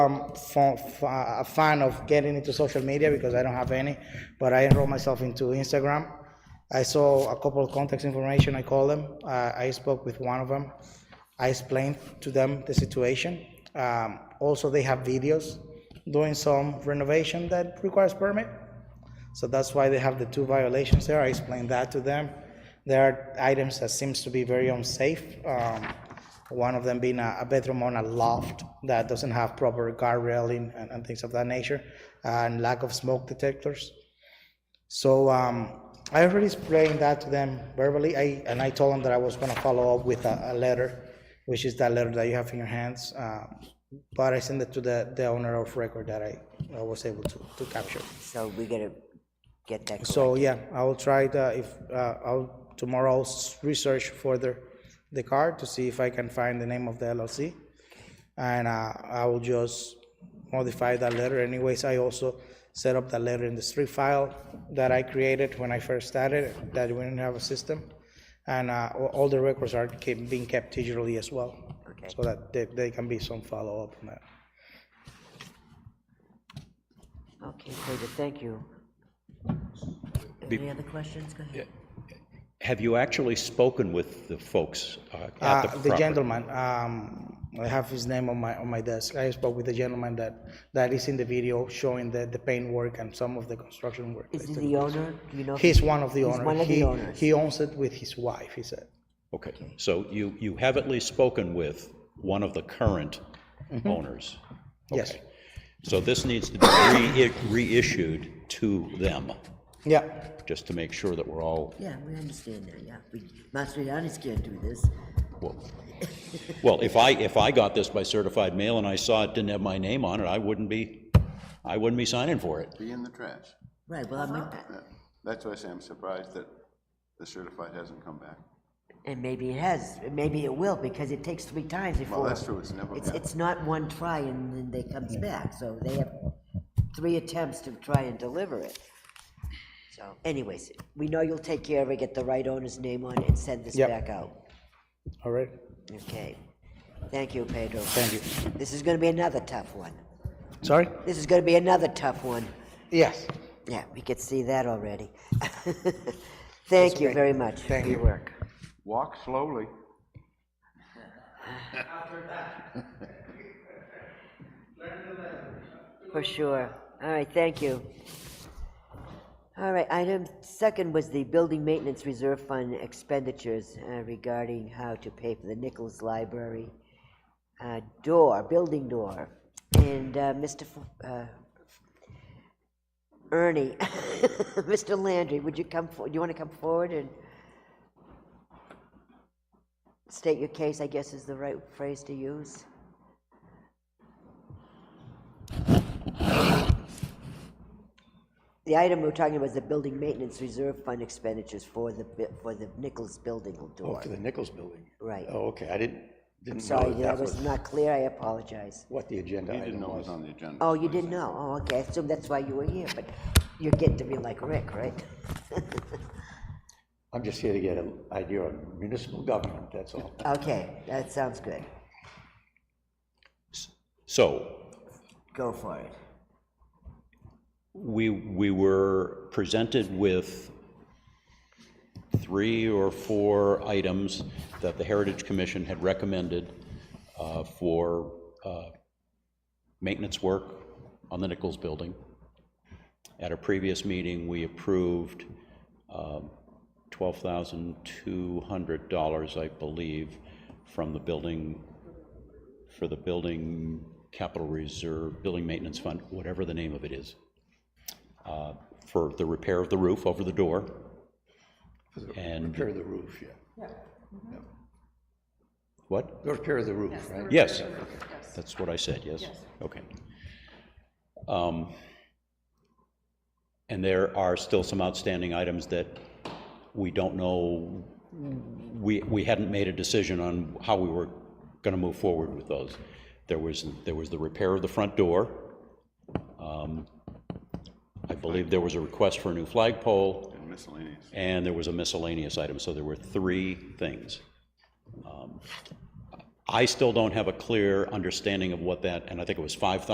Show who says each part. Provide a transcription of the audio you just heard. Speaker 1: um, fa- fa- a fan of getting into social media because I don't have any, but I enrolled myself into Instagram. I saw a couple of contact information. I called them. Uh, I spoke with one of them. I explained to them the situation. Um, also, they have videos doing some renovation that requires permit. So that's why they have the two violations there. I explained that to them. There are items that seems to be very unsafe. Um, one of them being a, a bedroom on a loft that doesn't have proper guard railing and, and things of that nature, and lack of smoke detectors. So um, I already explained that to them verbally. I and I told them that I was going to follow up with a, a letter, which is that letter that you have in your hands. Uh, but I sent it to the, the owner of record that I, I was able to, to capture.
Speaker 2: So we gotta get that, cor-
Speaker 1: So, yeah, I will try the, if, uh, I'll, tomorrow I'll s- research further the card to see if I can find the name of the LLC. And, uh, I will just modify that letter anyways. I also set up that letter in the street file that I created when I first started, that we didn't have a system. And, uh, a- all the records are kept, being kept digitally as well.
Speaker 2: Okay.
Speaker 1: So that there, there can be some follow-up on that.
Speaker 2: okay, David, thank you. Any other questions? Go ahead.
Speaker 3: Have you actually spoken with the folks uh, at the
Speaker 1: Uh,
Speaker 3: property?
Speaker 1: The gentleman, um, I have his name on my, on my desk. I spoke with the gentleman that, that is in the video showing the, the paint work and some of the construction work.
Speaker 2: Is he the owner? Do you know? if
Speaker 1: He's one of the
Speaker 2: He's
Speaker 1: owners.
Speaker 2: one of the
Speaker 1: He-
Speaker 2: owners.
Speaker 1: He owns it with his wife, he said.
Speaker 3: Okay, so you, you have at least spoken with one of the current owners?
Speaker 1: Mm-hmm. Yes.
Speaker 3: Okay. So this needs to be re- reissued to them,
Speaker 1: Yeah,
Speaker 3: just to make sure that we're all,
Speaker 2: Yeah, we understand that, yeah. We- Mastroianni's can't do this.
Speaker 3: well, well, if I, if I got this by certified mail and I saw it didn't have my name on it, I wouldn't be, I wouldn't be signing for it.
Speaker 4: be in the trash.
Speaker 2: Right, well, I mean,
Speaker 4: Yeah. That's why I say I'm surprised that the certified hasn't come back.
Speaker 2: and maybe it has, and maybe it will, because it takes three times before.
Speaker 4: Well, that's true, it's never
Speaker 2: It's,
Speaker 4: been.
Speaker 2: it's not one try and then they comes back, so they have three attempts to try and deliver it. So anyways, we know you'll take care of it, get the right owner's name on it and send this
Speaker 1: Yep.
Speaker 2: back out.
Speaker 1: all right.
Speaker 2: Okay. Thank you, Pedro.
Speaker 1: Thank you.
Speaker 2: This is gonna be another tough one.
Speaker 1: Sorry?
Speaker 2: This is gonna be another tough one.
Speaker 1: Yes.
Speaker 2: Yeah, we could see that already. Thank you very much for
Speaker 1: Thank
Speaker 2: your
Speaker 1: you.
Speaker 2: work.
Speaker 4: Walk slowly.
Speaker 2: For sure. All right, thank you. All right, item second was the Building Maintenance Reserve Fund expenditures uh, regarding how to pay for the Nichols Library uh, door, building door. And uh, Mr. F- uh, Ernie, Mr. Landry, would you come, for- do you want to come forward and state your case, I guess is the right phrase to use? The item we're talking about is the building maintenance reserve fund expenditures for the, bu- for the Nichols building
Speaker 5: Oh,
Speaker 2: door.
Speaker 5: for the Nichols building?
Speaker 2: Right.
Speaker 5: Oh, okay, I didn't, didn't know
Speaker 2: Sorry,
Speaker 5: that
Speaker 2: that
Speaker 5: that
Speaker 2: was
Speaker 5: was
Speaker 2: not clear, I apologize.
Speaker 5: what the agenda
Speaker 4: Didn't
Speaker 5: item
Speaker 4: know it
Speaker 5: was.
Speaker 4: was on the agenda.
Speaker 2: Oh, you didn't know, oh, okay, I assume that's why you were here, but you're getting to be like Rick, right?
Speaker 5: I'm just here to get an idea on municipal government, that's all.
Speaker 2: Okay, that sounds good,
Speaker 3: So
Speaker 2: go for it.
Speaker 3: We, we were presented with three or four items that the Heritage Commission had recommended uh, for uh, maintenance work on the Nichols Building. At a previous meeting, we approved um, $12,200, I believe, from the building for the building capital reserve, building maintenance fund, whatever the name of it is, uh, for the repair of the roof over the door. And,
Speaker 5: Repair the roof, yeah.
Speaker 3: what?
Speaker 5: The Repair the roof, right?
Speaker 3: Yes, that's what I said, yes? Okay. Um, And there are still some outstanding items that we don't know, we, we hadn't made a decision on how we were going to move forward with those. There was, there was the repair of the front door. Um, I believe there was a request for a new flagpole.
Speaker 4: And miscellaneous.
Speaker 3: and there was a miscellaneous item, so there were three things. Um, I still don't have a clear understanding of what that, and I think it was five thousand.